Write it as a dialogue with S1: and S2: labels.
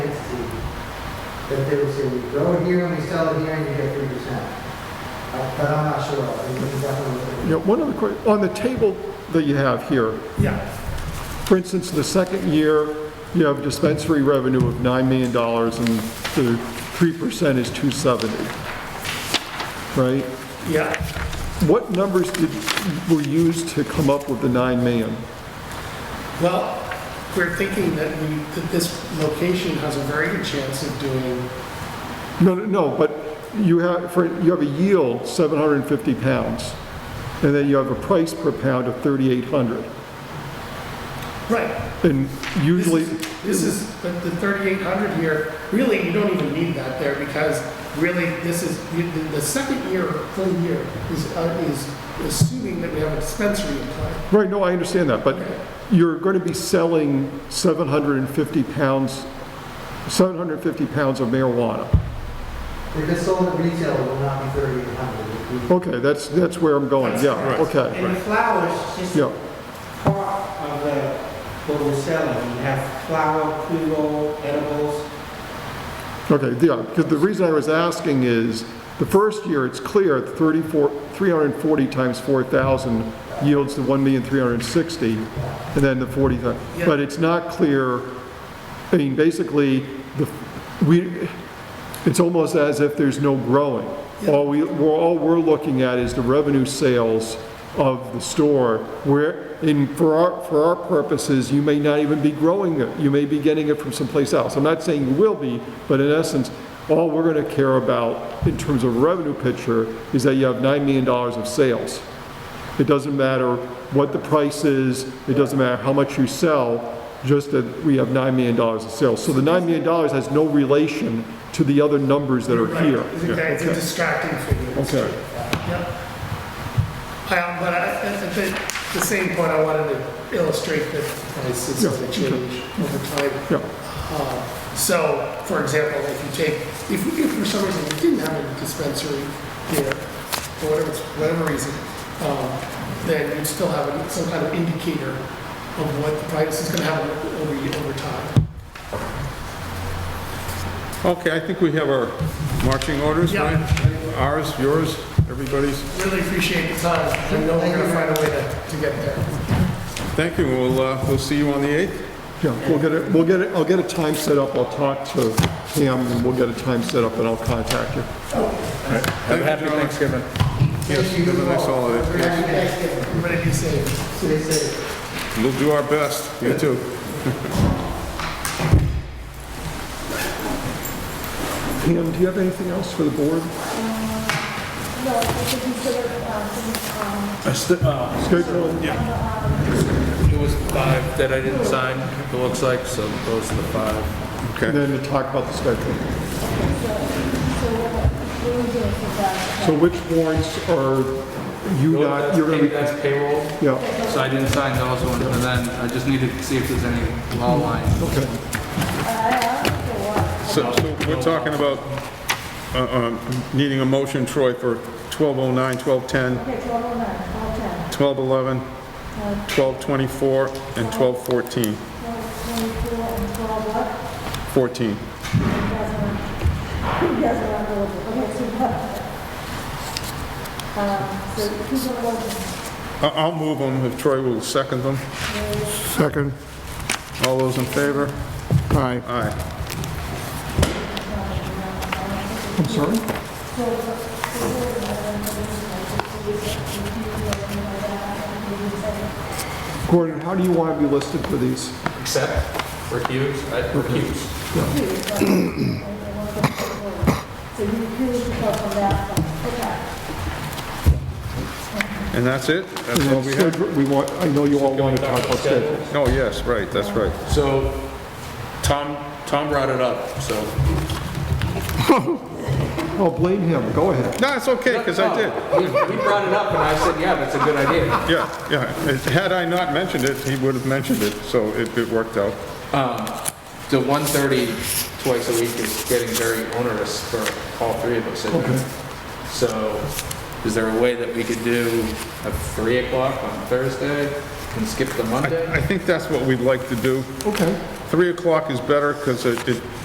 S1: that they would say, we grow it here and we sell it here and you get three percent. But I'm not sure, we can definitely look at it.
S2: Yeah, one other question, on the table that you have here,
S3: Yeah,
S2: for instance, the second year, you have dispensary revenue of $9 million, and the 3% is 270, right?
S3: yeah.
S2: What numbers did, were used to come up with the 9 million?
S3: Well, we're thinking that we, that this location has a very good chance of doing,
S2: No, no, no, but you have, for, you have a yield, 750 pounds, and then you have a price per pound of 3,800.
S3: right.
S2: And
S3: This
S2: usually,
S3: is- This is, but the 3,800 here, really, you don't even need that there because really, this is, you- the- the second year, full year, is, uh, is assuming that we have a dispensary in play.
S2: right, no, I understand that, but you're going to be selling 750 pounds, 750 pounds of marijuana.
S1: If it's sold at retail, it will not be thirty-eight hundred.
S2: Okay, that's, that's where I'm going, yeah,
S4: That's
S2: okay,
S4: And the flowers, just
S2: yeah.
S4: part of the, what we're selling. You have flower, pre-roll, edibles.
S2: Okay, yeah, because the reason I was asking is, the first year, it's clear, 34, 340 times 4,000 yields the 1,360, and then the 40,
S3: Yeah.
S2: but it's not clear, I mean, basically, the, we, it's almost as if there's no growing. All we, we're, all we're looking at is the revenue sales of the store, where, in, for our, for our purposes, you may not even be growing it, you may be getting it from someplace else. I'm not saying you will be, but in essence, all we're gonna care about in terms of revenue picture is that you have $9 million of sales. It doesn't matter what the price is, it doesn't matter how much you sell, just that we have $9 million of sales. So the $9 million has no relation to the other numbers that are here.
S3: It's a- It's a distracting figure.
S2: Okay.
S3: Yep. Um, But I, I- I think the same point I wanted to illustrate that prices
S2: Yeah,
S3: going to change over time.
S2: Yeah,
S3: Um, So, for example, if you take, if, if for some reason you didn't have a dispensary here, for whatever, it's- whatever reason, um, then you'd still have some kind of indicator of what the price is gonna have over, over time.
S5: Okay, I think we have our marching orders,
S3: Yeah.
S5: right? Ours, yours, everybody's.
S3: Really appreciate the time, I know we're gonna find a way to, to get there.
S5: Thank you, we'll, uh, we'll see you on the 8th.
S2: yeah, we'll get it, we'll get it, I'll get a time set up, I'll talk to Pam, and we'll get a time set up, and I'll contact you.
S5: Have a happy Thanksgiving. Yes,
S1: you
S5: have a nice
S1: all.
S5: holiday.
S1: Happy Thanksgiving,
S3: Everybody be safe.
S1: stay safe.
S5: We'll do our best, you too.
S2: Pam, do you have anything else for the board?
S6: Um, No, I think we should have, um,
S2: Schedule?
S7: It was five that I didn't sign, it looks like, so those are the five.
S2: And
S5: Okay,
S2: then to talk about the schedule. So which warrants are you not, you're gonna be,
S7: That's payroll,
S2: yeah,
S7: so I didn't sign those ones, and then I just needed to see if there's any law lines.
S2: okay.
S5: so, so we're talking about, uh, um, needing a motion, Troy, for 1209, 1210,
S6: okay,
S5: 1211,
S6: 1209, 1210,
S5: 1224, and 1214.
S6: 1224, and 12 what?
S5: 14.
S6: You guys are, you guys are not going to, okay, so what? Um, So who's going to go?
S5: I- I'll move them if Troy will second them. Second. All those in favor? Aye. Aye.
S2: I'm sorry? Gordon, how do you want to be listed for these?
S7: Except recuse, I recuse.
S6: So you refuse to go from that one, okay.
S5: And that's it? That's all
S2: And then
S5: we have?
S2: schedule- we want, I know you all want to talk about schedule.
S5: Oh, yes, right, that's right.
S7: So, Tom, Tom brought it up, so.
S2: I'll Oh, blame him, go ahead.
S5: No, it's okay, because I did.
S7: We we brought it up, and I said, yeah, that's a good idea.
S5: Yeah, yeah. It- Had I not mentioned it, he would have mentioned it, so it it worked out.
S7: The 1:30 twice a week is getting very onerous for all three of us. isn't it? So, is there a way that we could do a 3 o'clock on Thursday and skip the Monday?
S5: I I think that's what we'd like to do.
S2: Okay.
S5: 3 o'clock is better, because it it